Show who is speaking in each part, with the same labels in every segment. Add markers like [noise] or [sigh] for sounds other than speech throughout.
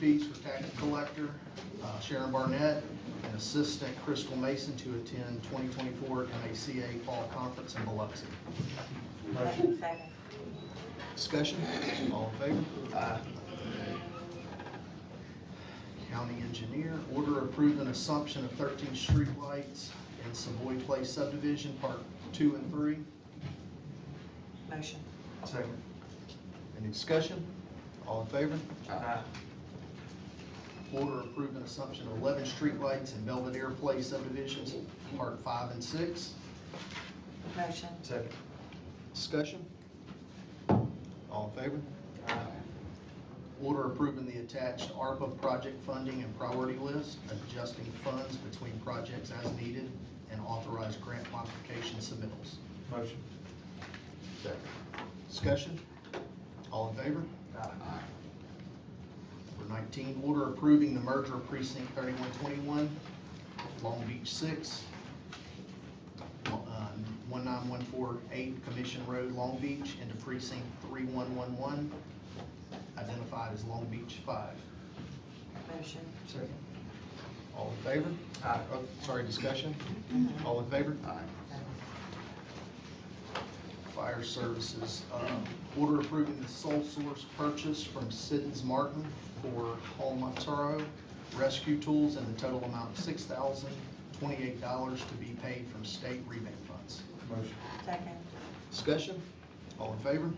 Speaker 1: fees for tax collector uh, Sharon Barnett and assistant Crystal Mason to attend 2024 MACA Fall Conference in Biloxi.
Speaker 2: Second.
Speaker 1: Discussion, all in favor? County engineer, order approving assumption of 13 streetlights in Savoy Place subdivision, part two and three.
Speaker 2: Motion.
Speaker 1: Second. Any discussion? All in favor?
Speaker 3: Uh,
Speaker 1: Order approving assumption of 11 streetlights in Belvedere Place subdivisions, part five and six.
Speaker 2: Motion.
Speaker 1: Second. Discussion? All in favor?
Speaker 3: Uh,
Speaker 1: Order approving the attached ARPA project funding and priority list, adjusting funds between projects as needed, and authorized grant modification submittals.
Speaker 3: Motion.
Speaker 1: Second. Discussion? All in favor?
Speaker 3: Uh,
Speaker 1: Number nineteen, order approving the merger of precinct thirty-one twenty-one, Long Beach six, uh, one nine one four eight Commission Road, Long Beach, into precinct three one one one, identified as Long Beach five.
Speaker 2: Motion.
Speaker 1: Second. All in favor?
Speaker 3: Uh,
Speaker 1: Aye. Uh, Sorry, discussion? All in favor? Aye. Fire Services, um, order approving the sole source purchase from Siddons Martin for Hall Montero rescue tools in the total amount of six thousand twenty-eight dollars to be paid from state rebate funds.
Speaker 3: Motion. Uh,
Speaker 2: Second.
Speaker 1: Discussion? All in favor?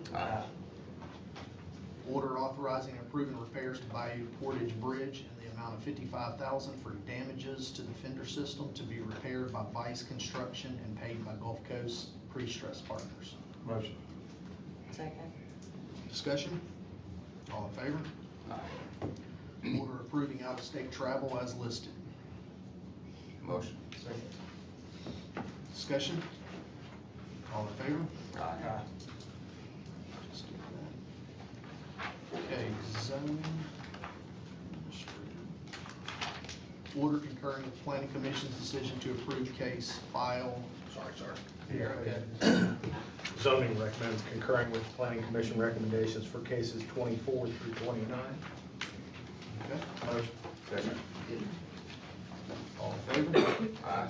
Speaker 1: Order authorizing and approving repairs to Bayou Portage Bridge in the amount of fifty-five thousand for damages to the fender system to be repaired by Vice Construction and paid by Gulf Coast Pre-Stress Partners.
Speaker 3: Motion.
Speaker 2: Second.
Speaker 1: Discussion? All in favor? Order approving out-of-state travel as listed.
Speaker 4: Motion.
Speaker 3: Second.
Speaker 1: Discussion? All in favor?
Speaker 3: Aye.
Speaker 1: Just do that. Okay, zoning. Order concurring with planning commission's decision to approve case file. Sorry, sorry.
Speaker 3: Here, Zoning recommends concurring with planning commission recommendations for cases twenty-four through twenty-nine.
Speaker 1: Okay,
Speaker 3: Motion.
Speaker 4: Second.
Speaker 1: all in favor?
Speaker 4: Aye.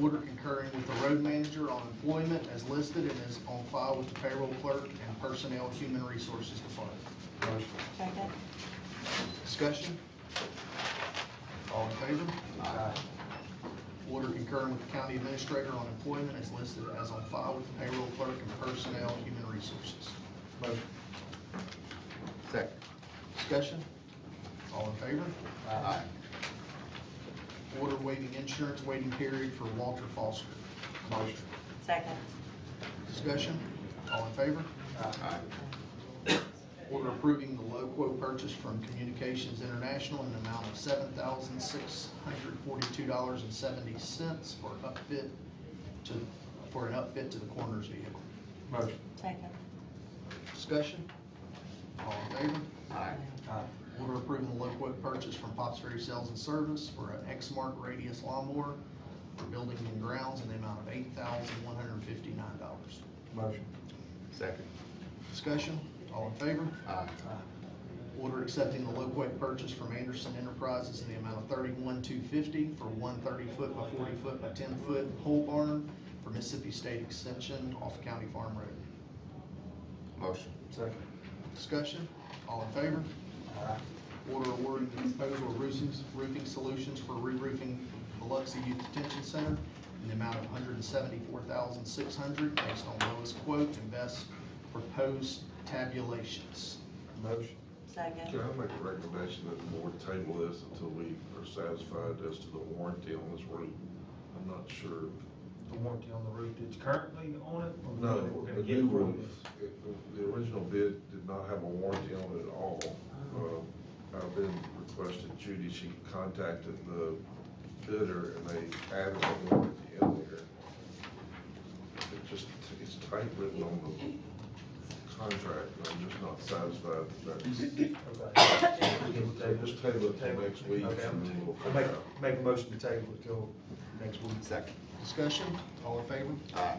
Speaker 1: Order concurring with the road manager on employment as listed and is on file with the payroll clerk and personnel human resources department.
Speaker 3: Motion.
Speaker 2: Second.
Speaker 1: Discussion? All in favor?
Speaker 3: Aye.
Speaker 1: Order concurring with the county administrator on employment as listed as on file with the payroll clerk and personnel human resources.
Speaker 3: Motion.
Speaker 4: Second.
Speaker 1: Discussion? All in favor?
Speaker 3: Uh,
Speaker 4: Aye.
Speaker 1: Order waiving insurance waiting period for Walter Foster.
Speaker 3: Motion.
Speaker 2: Second.
Speaker 1: Discussion? All in favor?
Speaker 3: Uh,
Speaker 4: Aye.
Speaker 1: Order approving the low quote purchase from Communications International in the amount of seven thousand six hundred forty-two dollars and seventy cents for an upfit to, for an upfit to the coroner's vehicle.
Speaker 3: Motion.
Speaker 2: Second.
Speaker 1: Discussion? All in favor?
Speaker 4: Aye.
Speaker 3: Aye.
Speaker 1: Order approving the low quote purchase from Pops Ferry Sales and Service for an X-Mark radius lawnmower for buildings and grounds in the amount of eight thousand one hundred and fifty-nine dollars.
Speaker 3: Motion.
Speaker 4: Second.
Speaker 1: Discussion, all in favor?
Speaker 4: Aye.
Speaker 1: Order accepting the low quote purchase from Anderson Enterprises in the amount of thirty-one two fifty for one thirty-foot by forty-foot by ten-foot pole barn for Mississippi State Extension off County Farm Road.
Speaker 4: Motion.
Speaker 3: Second. Uh,
Speaker 1: Discussion, all in favor?
Speaker 3: Aye.
Speaker 1: Order awarding the disposal of roofing, roofing solutions for re-roofing Biloxi Youth Detention Center in the amount of hundred and seventy-four thousand, six hundred, based on lowest quote and best proposed tabulations.
Speaker 3: Motion.
Speaker 2: Second.
Speaker 5: Can I make a recommendation that the board table this until we are satisfied as to the warranty on this roof? I'm not sure.
Speaker 3: The warranty on the roof that's currently on it? or
Speaker 5: No,
Speaker 3: we're gonna
Speaker 5: the
Speaker 3: get
Speaker 5: new
Speaker 3: from
Speaker 5: roof, it- the original bid did not have a warranty on it at all. Uh, I've been requested Judy, she contacted the bidder and they added a warranty in there. It just, it's tight written on the contract, and I'm just not
Speaker 3: [coughs]
Speaker 5: satisfied that that's
Speaker 3: it? Okay.
Speaker 5: Just table it till next week, and then we'll
Speaker 3: I'll
Speaker 5: find
Speaker 3: make,
Speaker 5: out.
Speaker 3: make a motion to table it till next week.
Speaker 4: Second.
Speaker 1: Discussion,
Speaker 6: All in favor?
Speaker 1: Aye.